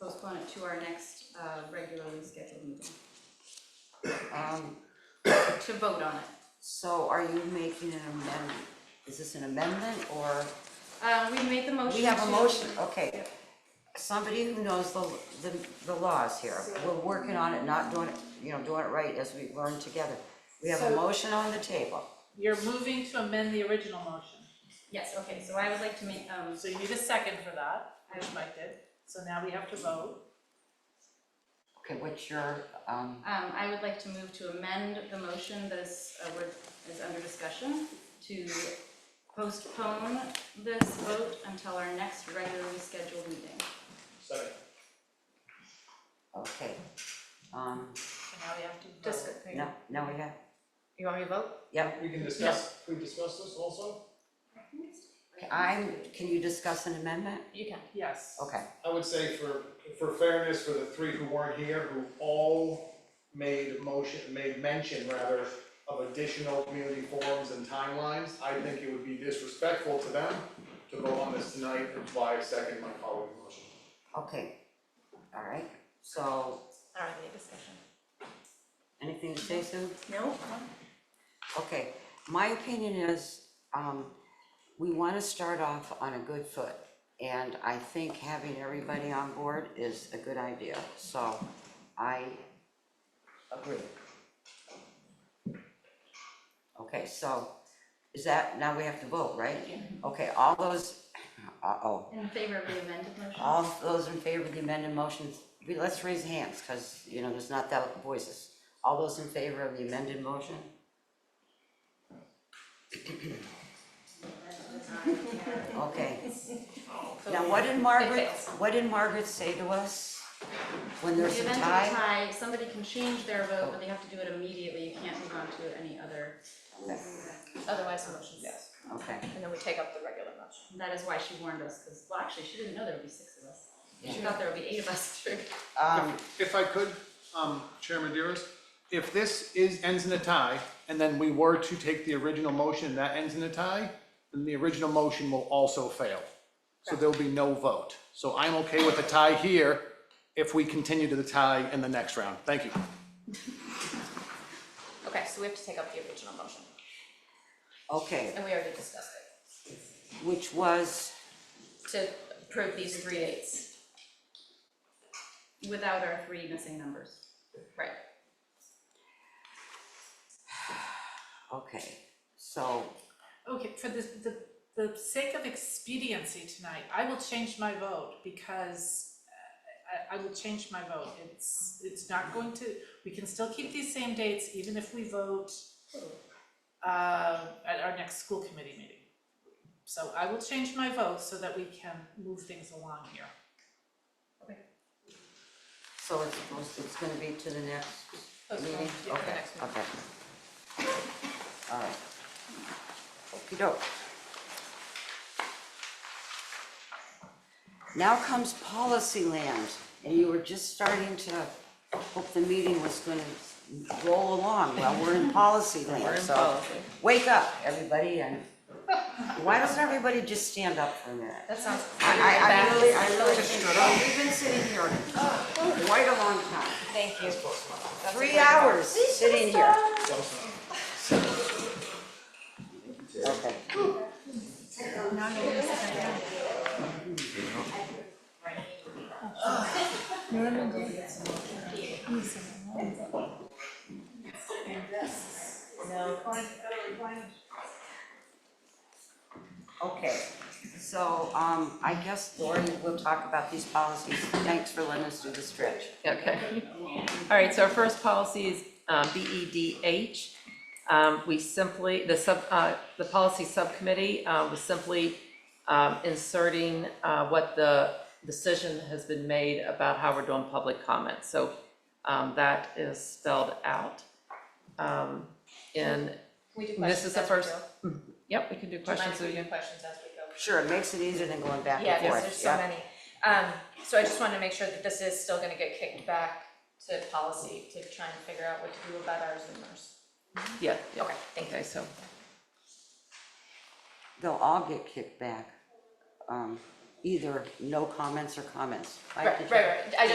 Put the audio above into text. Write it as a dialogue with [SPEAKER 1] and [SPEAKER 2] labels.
[SPEAKER 1] postpone it to our next uh regularly scheduled meeting
[SPEAKER 2] Um,
[SPEAKER 1] to vote on it.
[SPEAKER 2] so are you making an amendment? Is this an amendment or,
[SPEAKER 1] Uh, we made the motion
[SPEAKER 2] we have a
[SPEAKER 1] to-
[SPEAKER 2] motion, okay. Somebody who knows the, the, the laws here, we're working on it, not doing it, you know, doing it right as we learn together. We have a
[SPEAKER 3] So-
[SPEAKER 2] motion on the table.
[SPEAKER 3] You're moving to amend the original motion.
[SPEAKER 1] Yes, okay, so I would like to make, um,
[SPEAKER 3] So you need a second for that, which Mike did. So now we have to vote.
[SPEAKER 2] Okay, what's your, um,
[SPEAKER 1] um, I would like to move to amend the motion that is, uh, word- is under discussion to postpone this vote until our next regularly scheduled meeting.
[SPEAKER 4] Second.
[SPEAKER 2] okay, um,
[SPEAKER 3] So now we have to vote.
[SPEAKER 1] Just,
[SPEAKER 2] no, no, we have,
[SPEAKER 1] you want me to vote?
[SPEAKER 2] yep.
[SPEAKER 4] We can discuss, we discuss this also?
[SPEAKER 2] I'm, can you discuss an amendment?
[SPEAKER 1] You can.
[SPEAKER 3] Yes.
[SPEAKER 2] Okay,
[SPEAKER 4] I would say for, for fairness, for the three who weren't here, who all made motion, made mention rather of additional community forums and timelines, I think it would be disrespectful to them to vote on this tonight, which is why I second my colleague's motion.
[SPEAKER 2] okay, all right, so,
[SPEAKER 1] All right, any discussion?
[SPEAKER 2] anything to say, Sue?
[SPEAKER 1] No.
[SPEAKER 2] Okay, my opinion is, um, we wanna start off on a good foot. And I think having everybody on board is a good idea, so I agree. Okay, so, is that, now we have to vote, right? Okay, all those, uh-oh,
[SPEAKER 1] In favor of the amended motion?
[SPEAKER 2] all those in favor of the amended motion, we- let's raise hands, cause, you know, there's not that voices. All those in favor of the amended motion? Okay. Now, what did Margaret, what did Margaret say to us when
[SPEAKER 1] The
[SPEAKER 2] there's a
[SPEAKER 1] amendment
[SPEAKER 2] tie?
[SPEAKER 1] tie, somebody can change their vote, but they have to do it immediately, you can't move on to any other.
[SPEAKER 5] Otherwise, the motion fails,
[SPEAKER 2] Okay,
[SPEAKER 5] and then we take up the regular motion.
[SPEAKER 1] And That is why she warned us, because, well, actually, she didn't know there would be six of us. She thought there would be eight of us, true.
[SPEAKER 2] um,
[SPEAKER 4] If I could, um, Chairman Dearest, if this is, ends in a tie, and then we were to take the original motion and that ends in a tie, then the original motion will also fail. So there'll be no vote. So I'm okay with a tie here if we continue to the tie in the next round. Thank you.
[SPEAKER 5] Okay, so we have to take up the original motion,
[SPEAKER 2] okay,
[SPEAKER 5] and we already discussed it,
[SPEAKER 2] which was,
[SPEAKER 5] to approve these three dates.
[SPEAKER 1] Without our three missing numbers.
[SPEAKER 5] Right.
[SPEAKER 2] okay, so,
[SPEAKER 3] Okay, for the, the, the sake of expediency tonight, I will change my vote because uh, I, I will change my vote. It's, it's not going to, we can still keep these same dates even if we vote uh, at our next school committee meeting. So I will change my vote so that we can move things along here.
[SPEAKER 2] so it's supposed, it's gonna be to the next
[SPEAKER 5] Postpone,
[SPEAKER 2] meeting?
[SPEAKER 5] yeah, the
[SPEAKER 2] Okay,
[SPEAKER 5] next meeting.
[SPEAKER 2] okay. All right. Okey doke. Now comes policy land, and you were just starting to hope the meeting was gonna roll along, well, we're in policy land, so. Wake up, everybody, and why doesn't everybody just stand up for a minute?
[SPEAKER 5] That sounds.
[SPEAKER 2] I, I really, I really
[SPEAKER 5] Just
[SPEAKER 2] think,
[SPEAKER 5] shut up.
[SPEAKER 2] we've been sitting here quite a long time,
[SPEAKER 5] Thank you. That's a
[SPEAKER 2] three
[SPEAKER 5] great-
[SPEAKER 2] hours sitting here. Okay, okay, so, um, I guess, Lori, we'll talk about these policies, thanks for letting us do the stretch.
[SPEAKER 6] Okay. All right, so our first policy is uh, BEDH. Um, We simply, the sub, uh, the policy subcommittee uh, was simply um, inserting uh, what the decision has been made about how we're doing public comment. So um, that is spelled out. Um, And,
[SPEAKER 5] Can we do
[SPEAKER 6] This
[SPEAKER 5] questions
[SPEAKER 6] is the
[SPEAKER 5] as we
[SPEAKER 6] first
[SPEAKER 5] go?
[SPEAKER 6] yep, we can do
[SPEAKER 5] Do you mind
[SPEAKER 6] questions.
[SPEAKER 5] if
[SPEAKER 6] so
[SPEAKER 5] we
[SPEAKER 6] you-
[SPEAKER 5] do questions as we go?
[SPEAKER 2] Sure, it makes it easier than going back
[SPEAKER 5] Yeah,
[SPEAKER 2] and
[SPEAKER 5] because
[SPEAKER 2] forth,
[SPEAKER 5] there's so
[SPEAKER 2] yeah.
[SPEAKER 5] many. Um, so I just wanted to make sure that this is still gonna get kicked back to policy to try and figure out what to do about our Zoomers.
[SPEAKER 6] Yeah, yeah.
[SPEAKER 5] Okay, thank you.
[SPEAKER 6] Okay, so,
[SPEAKER 2] They'll all get kicked back, um, either no comments or comments. Mike,
[SPEAKER 5] Right,
[SPEAKER 2] did
[SPEAKER 5] right,
[SPEAKER 2] you-
[SPEAKER 5] right. I just